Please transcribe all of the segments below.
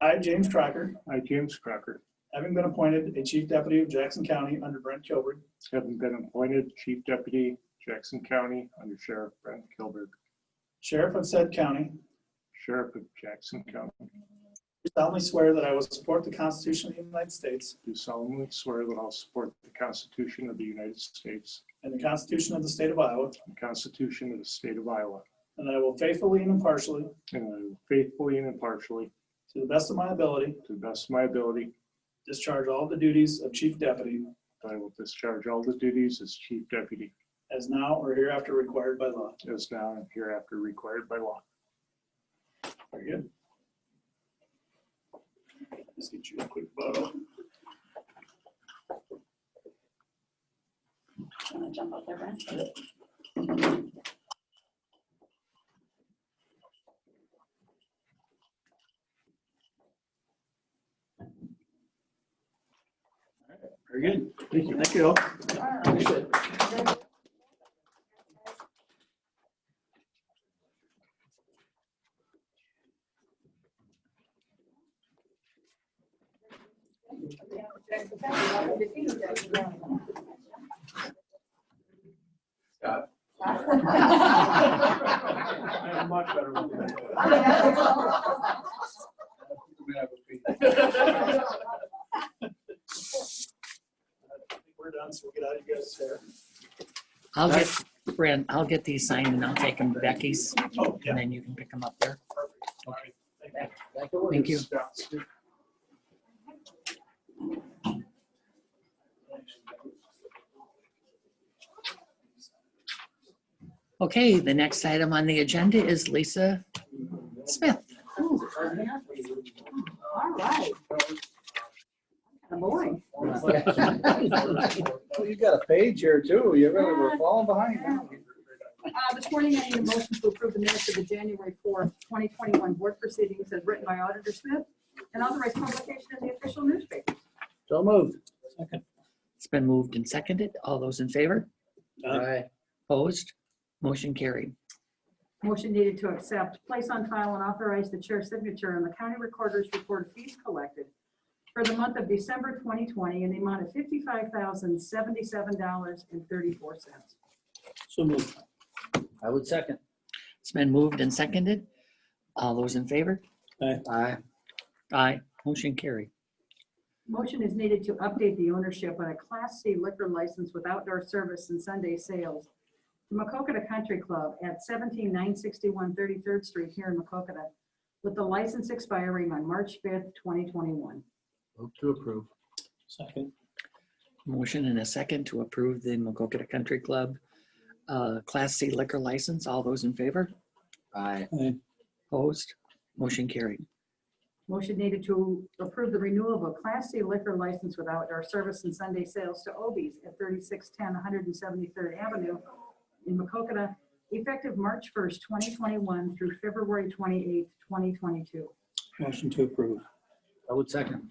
I, James Crocker, I, James Crocker, having been appointed a chief deputy of Jackson County under Brent Kilberg, having been appointed Chief Deputy Jackson County under Sheriff Brent Kilberg, sheriff of said county, Sheriff of Jackson County, do solemnly swear that I will support the Constitution of the United States do solemnly swear that I'll support the Constitution of the United States and the Constitution of the State of Iowa, and the Constitution of the State of Iowa, and that I will faithfully and impartially, and I will faithfully and impartially, to the best of my ability, to the best of my ability, discharge all the duties of chief deputy that I will discharge all the duties as Chief Deputy as now or hereafter required by law. as now and hereafter required by law. Very good. Just get you a quick photo. I'm gonna jump up there, Brent. Very good. Thank you. Thank you all. Appreciate it. Uh, I'm much better with that. I think We're done, so we'll get out of you guys' hair. I'll get, Brent, I'll get these signed and I'll take them to Becky's Oh, yeah. and then you can pick them up there. All right. Thank you. Thank you. Okay, the next item on the agenda is Lisa Smith. All right. Kinda boring. Well, You got a page here too. You're really, we're falling behind. now. Uh, This morning, I need a motion to approve the minutes of the January 4th, 2021 board proceedings as written by Auditor Smith and authorized publication in the official newspaper. So moved. It's been moved and seconded. All those in favor? Aye. Opposed? Motion carried. Motion needed to accept, place on file, and authorize the chair's signature on the county recorder's report of fees collected for the month of December 2020 in the amount of $55,077.34. So moved. I would second. It's been moved and seconded. All those in favor? Aye. Aye. Motion carried. Motion is needed to update the ownership on a Class C liquor license with outdoor service and Sunday sales. The Macokota Country Club at 17961 33rd Street here in Macokota, with the license expiring on March 5th, 2021. Move to approve. Second. Motion and a second to approve the Macokota Country Club uh, Class C liquor license. All those in favor? Aye. Opposed? Motion carried. Motion needed to approve the renewal of a Class C liquor license with outdoor service and Sunday sales to Obies at 3610 173rd Avenue in Macokota, effective March 1st, 2021 through February 28th, 2022. Motion to approve. I would second.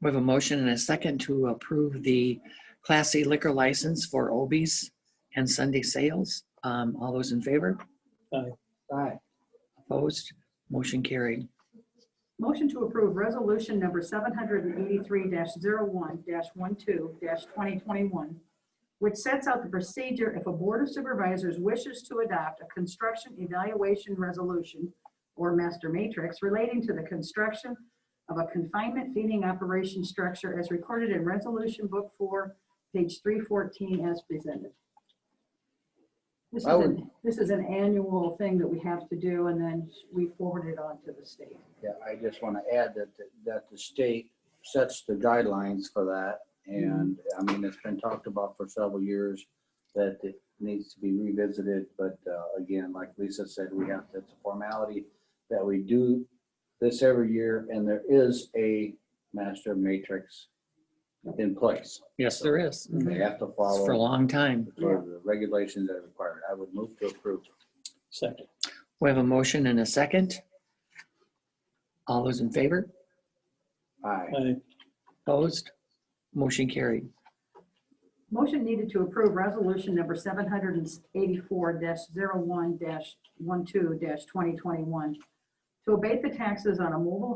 We have a motion and a second to approve the Class C liquor license for Obies and Sunday sales. Um, All those in favor? Aye. Opposed? Motion carried. Motion to approve resolution number seven hundred and eighty-three one one-two twenty twenty-one, which sets out the procedure if a board of supervisors wishes to adopt a construction evaluation resolution or master matrix relating to the construction of a confinement feeding operation structure as recorded in resolution book four, page three fourteen as presented. This is I would- an, this is an annual thing that we have to do and then we forward it on to the state. Yeah, I just want to add that, that the state sets the guidelines for that. And I mean, it's been talked about for several years that it needs to be revisited. But uh, again, like Lisa said, we have, it's a formality that we do this every year and there is a master matrix in place. Yes, there is. They have to It's follow. For a long time. for the regulations that are required. I would move to approve. Second. We have a motion and a second. All those in favor? Aye. Aye. Opposed? Motion carried. Motion needed to approve resolution number seven hundred and eighty-four one one-two twenty twenty-one to abate the taxes on a mobile